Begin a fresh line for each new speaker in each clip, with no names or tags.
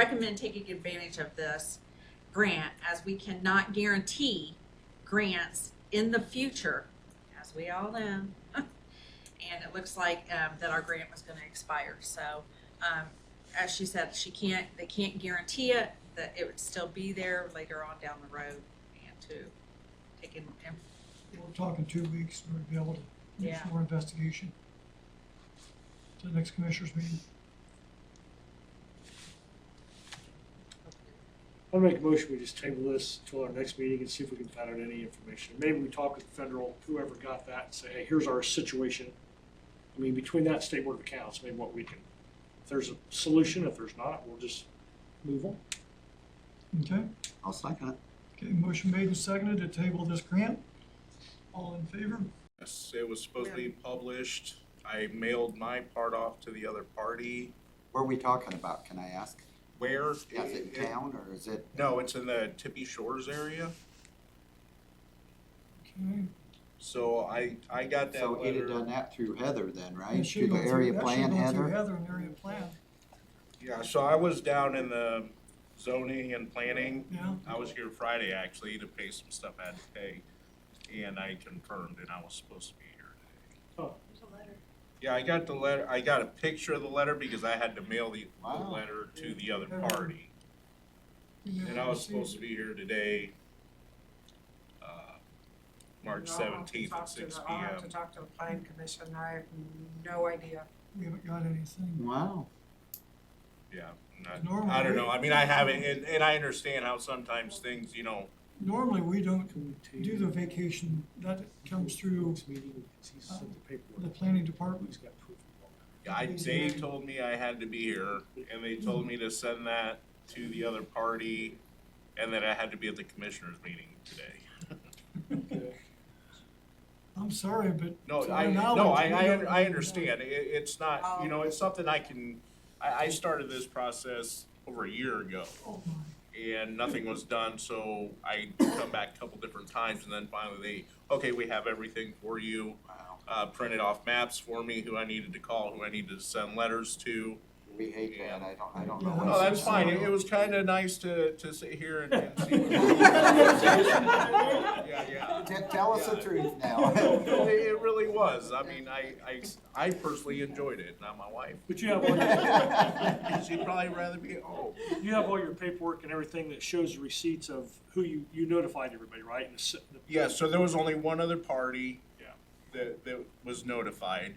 recommend taking advantage of this grant as we cannot guarantee grants in the future, as we all know. And it looks like, um, that our grant was gonna expire, so, um, as she said, she can't, they can't guarantee it, that it would still be there later on down the road and to take in, and
We'll talk in two weeks, we'll be able to do
Yeah.
some more investigation. To the next commissioners meeting.
I'll make a motion, we just table this till our next meeting and see if we can find out any information. Maybe we talk with federal, whoever got that, and say, hey, here's our situation. I mean, between that and state board of accounts, maybe what we can, if there's a solution, if there's not, we'll just move on.
Okay,
I'll second it.
okay, motion made and seconded to table this grant. All in favor?
Yes, it was supposed to be published. I mailed my part off to the other party.
Where are we talking about, can I ask?
Where?
Is it in town or is it,
No, it's in the Tippy Shores area.
Okay,
So I, I got that
so it had done
letter.
that through Heather then, right?
that
Through
should
the
go
area
that should
plan,
go through
Heather?
Heather and area plan,
Yeah, so I was down in the zoning and planning.
yeah.
I was here Friday actually to pay some stuff I had to pay. And I confirmed and I was supposed to be here today. Yeah, I got the letter, I got a picture of the letter because I had to mail the, the
Wow.
letter to the other party. And I was supposed to be here today, uh, March
No, I'll
seventeenth
talk
at
to
six
the-
P
I'll have to
M.
talk to the planning commission, I have no idea.
We haven't got anything.
Wow,
Yeah, not-
Normally,
I don't
we-
know, I mean, I haven't, and, and I understand how sometimes things, you know,
Normally, we don't
Can we
do the vacation, that comes through
Next meeting, 'cause he's sent the paperwork.
the planning department.
He's got proof of all that.
I, they
Mhm.
told me I had to be here, and they told me to send that to the other party, and that I had to be at the commissioners meeting today.
I'm sorry, but.
No,
to
I,
my
no,
knowledge,
I,
we
I,
don't-
un- I understand, it, it's not, you
Oh.
know, it's something I can, I, I started this process over a year ago.
Oh, my.
and nothing was done, so I come back a couple different times, and then finally they, okay, we have everything for you.
wow.
Uh, printed off maps for me, who I needed to call, who I needed to send letters to.
We hate that, I don't, I don't know.
Yeah.
what
No,
to
Oh, that's
say.
fine, it, it was kinda nice to, to sit here and, and see. what- Yeah, yeah.
Te- Tell us the
Yeah.
truth
No,
now.
It, it really was, I mean, I, I, I personally enjoyed it, not my wife.
But you have all your,
She'd probably rather be at home.
you have all your paperwork and everything that shows the receipts of who you, you notified everybody, right? And the s- the-
Yeah, so there was only one other party.
Yeah.
That, that was notified,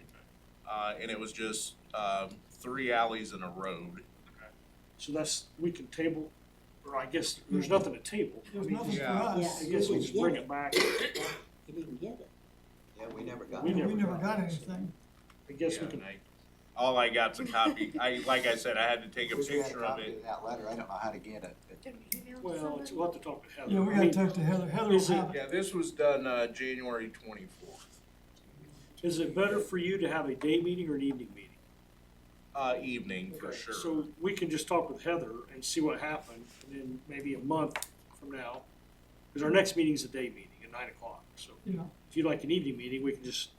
uh, and it was just, um, three alleys and a road.
So that's, we can table, or I guess, there's nothing to table. I
Hmm. There's
mean,
nothing for
Yeah.
us.
I guess we just bring it back.
You didn't get it.
Yeah, we never got
We
it.
We never
got
got
it.
anything.
I guess we
Yeah,
can,
and I- All I got's a copy, I, like I said, I had to take a
Wish we had a
picture of
copy
it.
of That letter, I don't know how to get it, but
well, it's, we'll have to talk to Heather.
Yeah, we
I
gotta
mean,
talk to Heather, Heather will
Is it-
have it.
Yeah, this was done, uh, January twenty-fourth,
Is it better for you to have a day meeting or an evening meeting?
uh, evening for
Okay,
sure.
So we can just talk with Heather and see what happened, and then maybe a month from now, because our next meeting's a day meeting at nine o'clock. So
Yeah.
if you'd like an evening meeting, we can just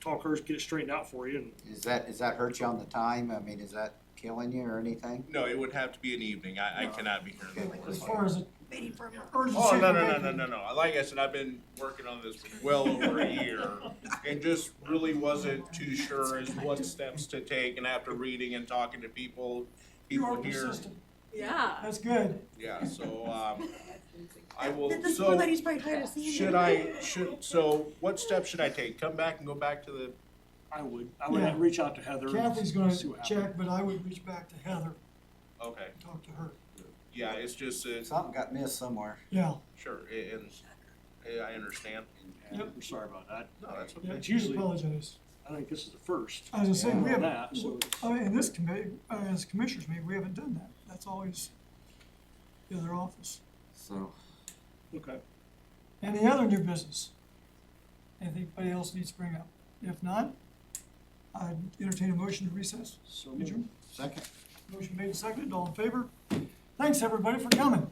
talk hers, get it straightened out for you, and
is that, is that hurt you on the time? I mean, is that killing you or anything?
No, it would have to be an evening, I, I cannot be here in the
Okay.
As
morning.
far as the urgency.
Oh, no, no, no, no, no, no, like I said, I've been working on this for well over a year, and just really wasn't too sure as what steps to take, and after reading and talking to people,
You are
people here.
persistent.
yeah.
That's good.
Yeah, so, um, I will,
This poor
so,
lady's probably tired of seeing you.
should I, should, so, what steps should I take? Come back and go back to the,
I would, I would
Yeah.
reach out to Heather. and
Kathy's gonna
see what happens.
check, but I would reach back to Heather
okay,
and talk to her.
yeah, it's just, uh,
Something got missed somewhere.
Yeah,
sure, a- and, yeah, I understand.
Yep.
I'm sorry about that.
No, that's okay.
yeah,
It's usually-
apologize.
I think this is the first.
As I say, we
Yeah.
have,
That, so it's-
I mean, in this committee, uh, as commissioners meeting, we haven't done that. That's always the other office.
So,
Okay.
Any other new business? Anything anybody else needs to bring up? If not, I entertain a motion to recess.
So
Adjourn.
second.
Motion made and seconded, all in favor? Thanks, everybody, for coming.